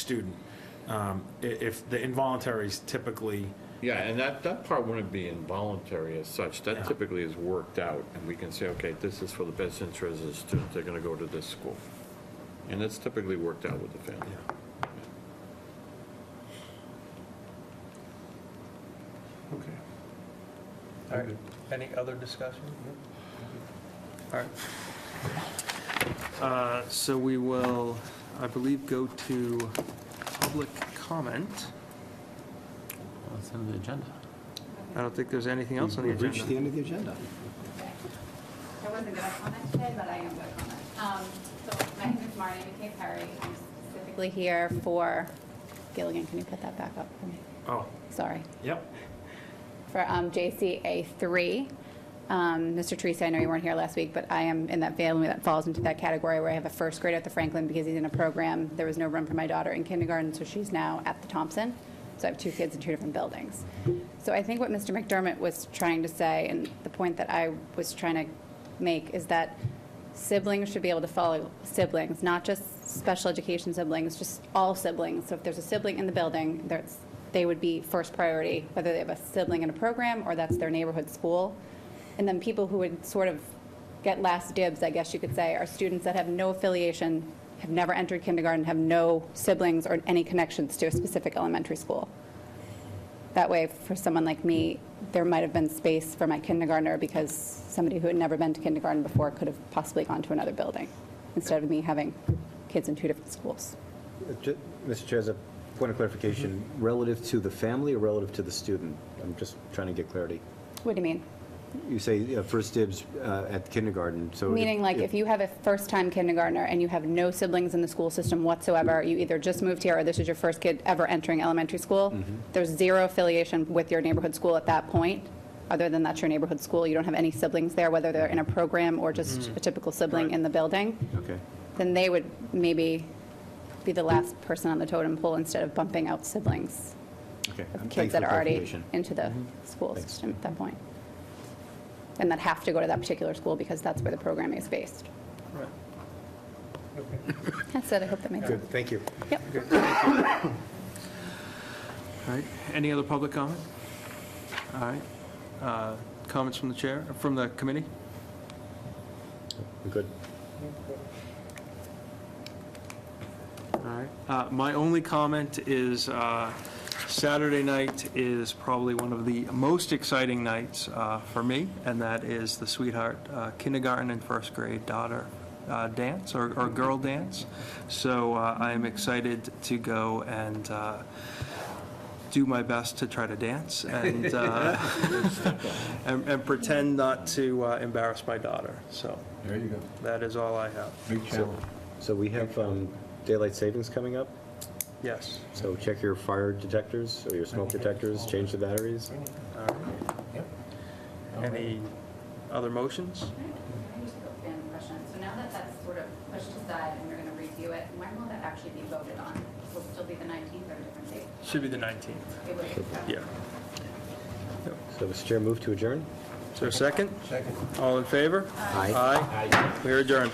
student. Um, i- If, the involuntaries typically, Yeah, and that, that part wouldn't be involuntary as such. That typically is worked out, and we can say, okay, this is for the best interest of the student, they're gonna go to this school. And that's typically worked out with the family. Okay. All right, any other discussion? All right. Uh, So we will, I believe, go to public comment. Well, That's on the agenda. I don't think there's anything else on the We've reached agenda. the end of the agenda. I wasn't going to comment today, but I am going to comment. Um, So my name is Marty McKay Perry. I'm specifically here for, Gilligan, can you put that back up for me? oh, Sorry. yep, For um, JCA 3. Um, Mr. Teresa, I know you weren't here last week, but I am in that family that falls into that category where I have a first grader at the Franklin because he's in a program. There was no room for my daughter in kindergarten, so she's now at the Thompson. So I have two kids in two different buildings. So I think what Mr. McDermott was trying to say, and the point that I was trying to make, is that siblings should be able to follow siblings, not just special education siblings, just all siblings. So if there's a sibling in the building, there's, they would be first priority, whether they have a sibling in a program or that's their neighborhood school. And then people who would sort of get last dibs, I guess you could say, are students that have no affiliation, have never entered kindergarten, have no siblings or any connections to a specific elementary school. That way, for someone like me, there might have been space for my kindergartner because somebody who had never been to kindergarten before could have possibly gone to another building instead of me having kids in two different schools. Ju- Mr. Chair, as a point of clarification, relative to the family or relative to the student? I'm just trying to get clarity. What do you mean? You say uh, first dibs uh, at kindergarten, so. Meaning like if you have a first-time kindergartner and you have no siblings in the school system whatsoever, you either just moved here or this is your first kid ever entering elementary school, there's zero affiliation with your neighborhood school at that point, other than that's your neighborhood school. You don't have any siblings there, whether they're in a program or just a typical sibling in the building. Okay. then they would maybe be the last person on the totem pole instead of bumping out siblings Okay. of Thanks kids for that are already clarification. into the school Thanks. system at that point. And that have to go to that particular school because that's where the program is based. Right. That's it, I hope that makes sense. Good, thank you. Yep. All right, any other public comment? All right, Uh, comments from the chair, from the committee? We're Good. All right. Uh, My only comment is uh, Saturday night is probably one of the most exciting nights uh, for me, and that is the Sweetheart uh, Kindergarten and First Grade Daughter uh, Dance, or or Girl Dance. So uh, I am excited to go and uh, do my best to try to dance and, uh, and and pretend not to uh, embarrass my daughter. So There you go. that is all I have. Big challenge. So we have um, daylight savings coming up, Yes. so check your fire detectors or your smoke detectors, change the batteries. All right. Any other motions? So now that that's sort of pushed aside and we're going to review it, when will that actually be voted on? Will it still be the 19th or a different date? Should be the 19th. It would- Yeah. So Mr. Chair, move to adjourn? So second? Second. All in favor? Aye. Aye. We are adjourned.